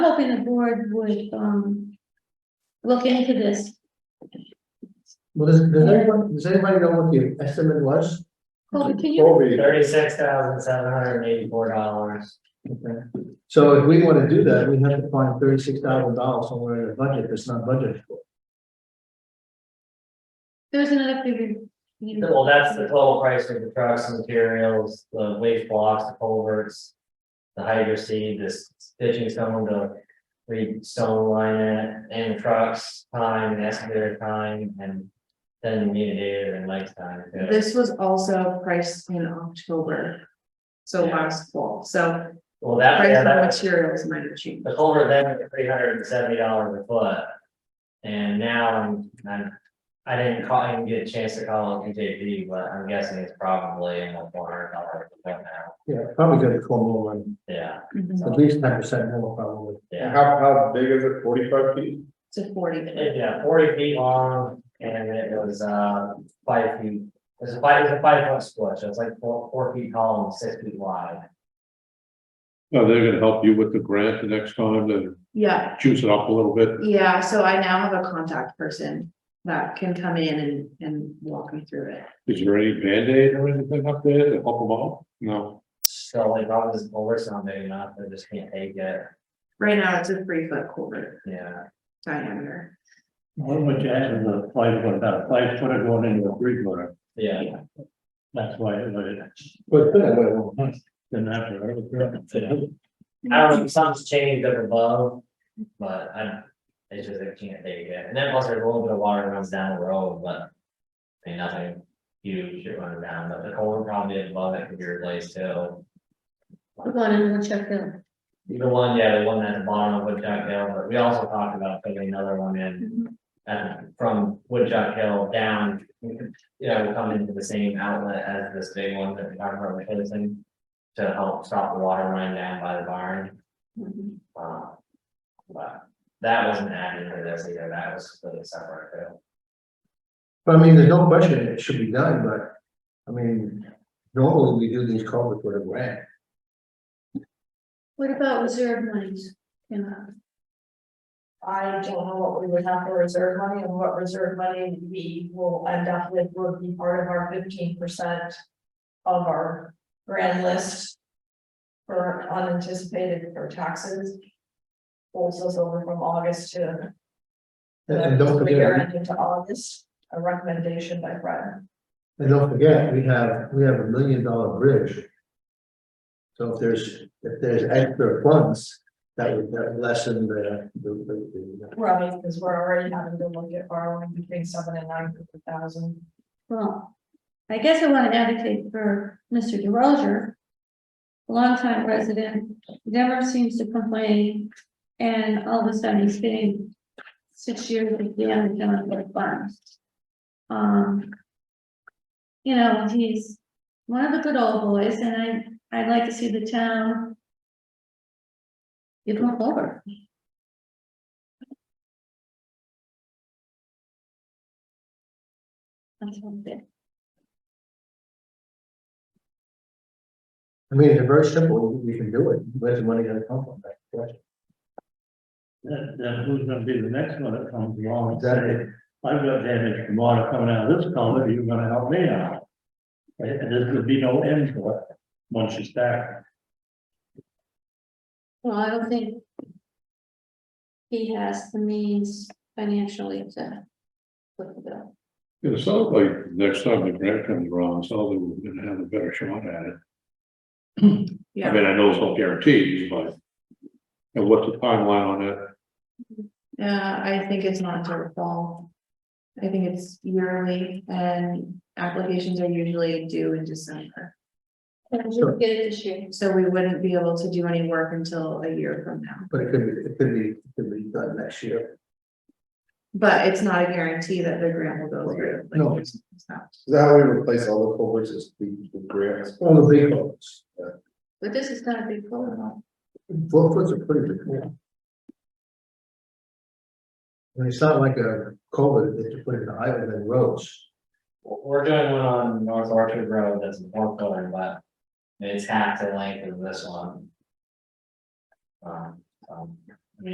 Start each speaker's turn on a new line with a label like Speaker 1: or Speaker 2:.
Speaker 1: hoping the board would, um, look into this.
Speaker 2: Well, does, does anyone, does anybody know what the estimate was?
Speaker 1: Colby, can you,
Speaker 3: Colby,
Speaker 4: Thirty-six thousand seven hundred and eighty-four dollars.
Speaker 2: So if we wanna do that, we have to find thirty-six thousand dollars somewhere in the budget that's not budgeted for.
Speaker 1: there's another figure. you know.
Speaker 4: Well, that's the total price of the trucks, the materials, the waste blocks, the culverts. The hydro seed, this ditching stone, the re stone line in, it, and the trucks, time, and excavator time, and. Then we need a day and length time. yeah.
Speaker 5: This was also priced in October. So
Speaker 4: Yeah.
Speaker 5: last fall, so
Speaker 4: Well, that,
Speaker 5: price
Speaker 4: yeah,
Speaker 5: of
Speaker 4: that,
Speaker 5: materials might have changed.
Speaker 4: the culvert then was three hundred and seventy dollars a foot. And now I'm, I'm, I didn't call, I didn't get a chance to call NJP, but I'm guessing it's probably in the four hundred dollar foot now.
Speaker 2: Yeah, probably gonna call more money,
Speaker 4: Yeah,
Speaker 6: Mm-hmm.
Speaker 2: at least ten percent more probably.
Speaker 4: yeah.
Speaker 3: how, how big is it, forty-five feet?
Speaker 5: To forty.
Speaker 4: Yeah, forty feet long and it was uh five feet, it was a five, it was a five foot split, so it's like four, four feet tall and six feet wide.
Speaker 7: Are they gonna help you with the grant the next time and
Speaker 5: Yeah,
Speaker 7: juice it up a little bit?
Speaker 5: yeah, so I now have a contact person that can come in and, and walk me through it.
Speaker 7: Is there any Band-Aid or anything up there to help them out? No,
Speaker 4: So like I was over something enough, they just can't take it,
Speaker 5: Right now, it's a three foot quarter
Speaker 4: yeah.
Speaker 5: diameter.
Speaker 8: What would you add to the five foot, that five footer going into a three footer,
Speaker 4: Yeah,
Speaker 8: that's why it would,
Speaker 2: But then, well,
Speaker 8: didn't have to.
Speaker 4: I don't know, if something's changed up above, but I don't, it's just they can't take it, and then plus there's a little bit of water runs down the road, but. I mean, nothing huge shit running down, but the culvert probably above it could be replaced too.
Speaker 1: We're going in and check out.
Speaker 4: The one, yeah, the one at the bottom of Woodchuck Hill, but we also talked about putting another one in, uh, from Woodchuck Hill down. You know, come into the same outlet as this big one that we talked about replacing. To help stop the water running down by the barn,
Speaker 5: Mhm.
Speaker 4: uh. But that wasn't added to this either, that was completely separate too.
Speaker 2: I mean, there's no question it should be done, but, I mean, normally we do these culverts with a grant.
Speaker 1: What about reserve monies? Can, uh,
Speaker 6: I don't know what we would have for reserve money and what reserve money we will end up with would be part of our fifteen percent. Of our grand list. For unanticipated for taxes. Pulls us over from August to.
Speaker 2: And- And don't
Speaker 6: the year
Speaker 2: forget,
Speaker 6: end Into August, a recommendation by Fred.
Speaker 2: and don't forget, we have, we have a million dollar bridge. So if there's, if there's extra funds, that would that would lessen the, the, the, the
Speaker 6: Right, because we're already having to look at borrowing between seven and nine hundred thousand.
Speaker 1: Well, I guess I want to advocate for Mr. DeRozier. Longtime resident, never seems to complain, and all of a sudden he's getting six years of the unemployment funds. Um. You know, he's one of the good old boys, and I, I'd like to see the town. Give him over. That's one thing.
Speaker 2: I mean, it's very simple, you can do it, where's the money gonna come from? That's the question.
Speaker 8: Then, then who's gonna be the next one that comes along and
Speaker 2: Exactly.
Speaker 8: say, I've got damage from water coming out of this culvert, you're gonna help me out. Right, and there's gonna be no end to it, once you start.
Speaker 1: Well, I don't think. He has the means financially to. foot the bill.
Speaker 7: it sounds like next time the grant comes around, so they were gonna have a better shot at it. I
Speaker 5: Yeah.
Speaker 7: mean, I know it's no guarantees, but. And what's the timeline on that?
Speaker 5: Yeah, Uh, I think it's not until the fall. I think it's yearly and applications are usually due in December.
Speaker 1: Can
Speaker 2: Sure.
Speaker 1: we Get it this year.
Speaker 5: So we wouldn't be able to do any work until a year from now.
Speaker 2: But it could be, it could be, it could be done next year.
Speaker 5: But it's not a guarantee that the grant will go through. like,
Speaker 2: No.
Speaker 5: it's- it's not.
Speaker 3: Is that how we replace all the culverts is the, the grants?
Speaker 2: All the big ones,
Speaker 1: But this is gonna be cool
Speaker 2: four foot's are pretty big. one. And it's not like a culvert that you put in the highway and roads.
Speaker 4: We're doing one on North Orchard Road that's a four footer, but it's half the length of this one. Um, um,